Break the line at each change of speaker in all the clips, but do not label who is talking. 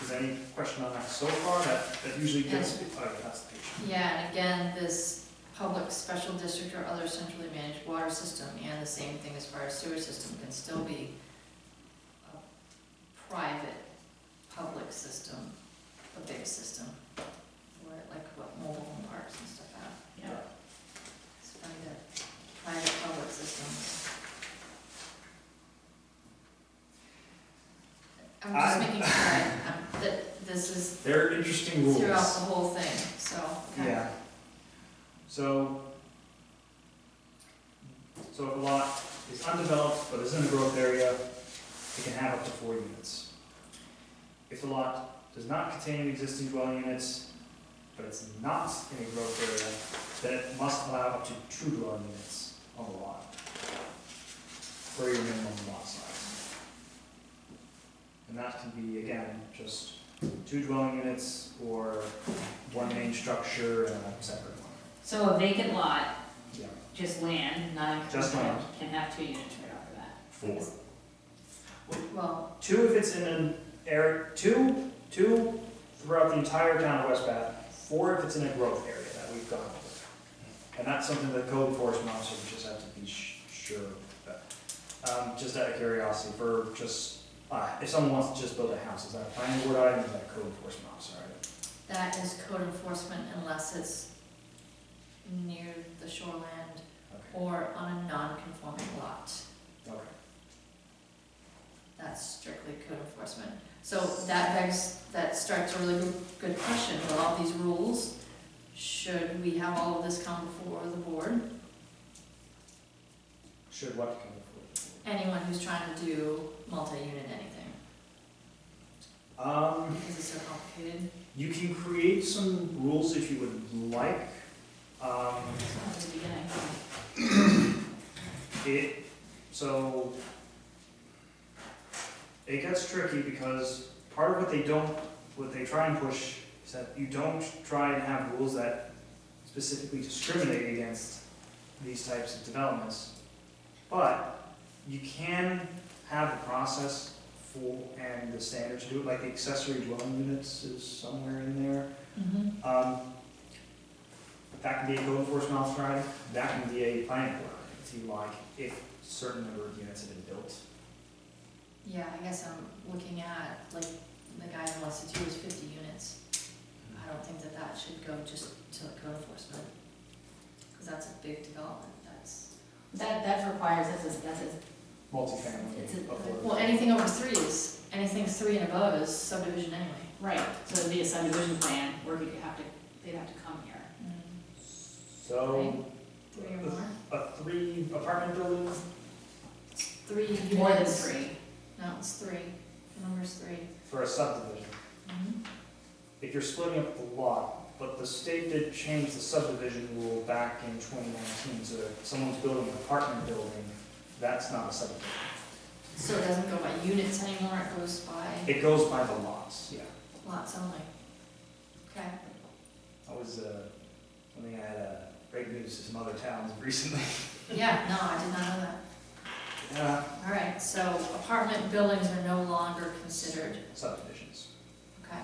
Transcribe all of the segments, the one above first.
there's any question on that so far, that, that usually gets, oh, that's the page.
Yeah, and again, this public special district or other centrally managed water system, and the same thing as far as sewer system, can still be a private, public system, a big system, where like what mobile home parks and stuff have.
Yeah.
It's funny that private, public systems. I'm
I-
just making sure I- I'm- that this is
They're interesting rules.
throughout the whole thing, so. okay.
Yeah. So, so if a lot is undeveloped but is in a growth area, it can have up to four units. If the lot does not contain existing dwelling units, but it's not in a growth area, then it must allow up to two dwelling units on the lot. For your minimum lot size. And that can be, again, just two dwelling units or one main structure and a separate one.
So a vacant lot,
Yeah.
just land, not a.
Just land.
Can have two units right off the bat.
Four.
Well,
Two if it's in an area, two, two throughout the entire town of West Bath, four if it's in a growth area that we've gone over. And that's something the code enforcement officer would just have to be sh- sure of. Um, just out of curiosity, for just, uh, if someone wants to just build a house, is that a planning board item or is that a code enforcement officer item?
that is code enforcement unless it's near the shoreland or on a non-conforming lot.
Okay, okay.
That's strictly code enforcement. So that begs, that starts a really good- good question, with all these rules, should we have all of this come before the board?
Should what come before?
Anyone who's trying to do multi-unit anything,
the board? Um.
because it's so complicated.
You can create some rules if you would like. Um,
It's not the beginning.
it, so, it gets tricky because part of what they don't, what they try and push is that you don't try and have rules that specifically discriminate against these types of developments. But you can have a process for, and the standards to do it, like the accessory dwelling units is somewhere in there.
Mm-hmm.
Um, That can be a code enforcement officer item, that can be a planning board item, if you like, if certain number of units have been built.
Yeah, I guess I'm looking at, like, the guy who wants to do his fifty units. I don't think that that should go just to code enforcement, because that's a big development, that's,
That, that requires, that's a, that's a, It's
Multifamily.
a-
affordable.
well, anything over three is, anything three and above is subdivision anyway.
right, so it'd be a subdivision plan, where you'd have to, they'd have to come here.
So,
Mm-hmm. Three or more,
a three apartment building,
three units.
More than three.
No, it's three, the number's three.
for a subdivision,
Mm-hmm.
if you're splitting up the lot, but the state did change the subdivision rule back in twenty nineteen, so if someone's building an apartment building, that's not a subdivision.
So it doesn't go by units anymore, it goes by
It goes by the lots, yeah.
lots only. Okay,
That was uh, something I had uh, great news to some other towns recently.
yeah, no, I did not know that.
Yeah.
All right, so apartment buildings are no longer considered,
Subdivisions.
okay?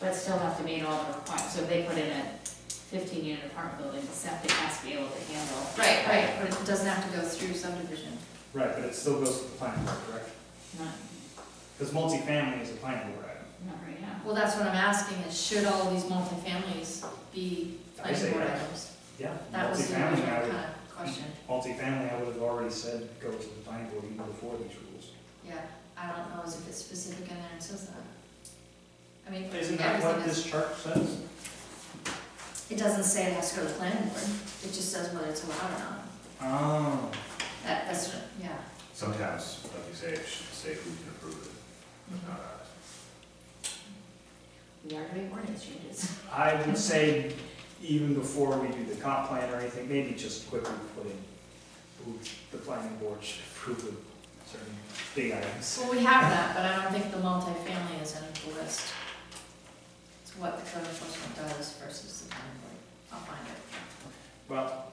But still have to meet all the requirements, so if they put in a fifteen unit apartment building, the septic has to be able to handle.
Right, right, but it doesn't have to go through subdivision.
Right, but it still goes to the planning board, correct?
Not,
Because multifamily is a planning board item.
not right now.
Well, that's what I'm asking, is should all these multifamilies be
I say
planning board
yes.
items?
Yeah.
That was the
multifamily,
original
I
kind
would-
of question.
Multifamily, I would have already said go to the planning board even before these rules.
Yeah, I don't know as if it's specific in there and says that. I mean,
Isn't that what
everything is,
this chart says?
it doesn't say it has to go to the planning board, it just says whether it's allowed or not.
Oh.
That, that's, what- yeah.
Sometimes, like you say, it should say who can approve it, Uh, but not us.
We are doing ordinance changes.
I would say even before we do the comp plan or anything, maybe just quickly put in who the planning board should approve of certain big items.
Well, we have that, but I don't think the multifamily is in the list. It's what the code enforcement does versus the planning board. I'll find it.
Well,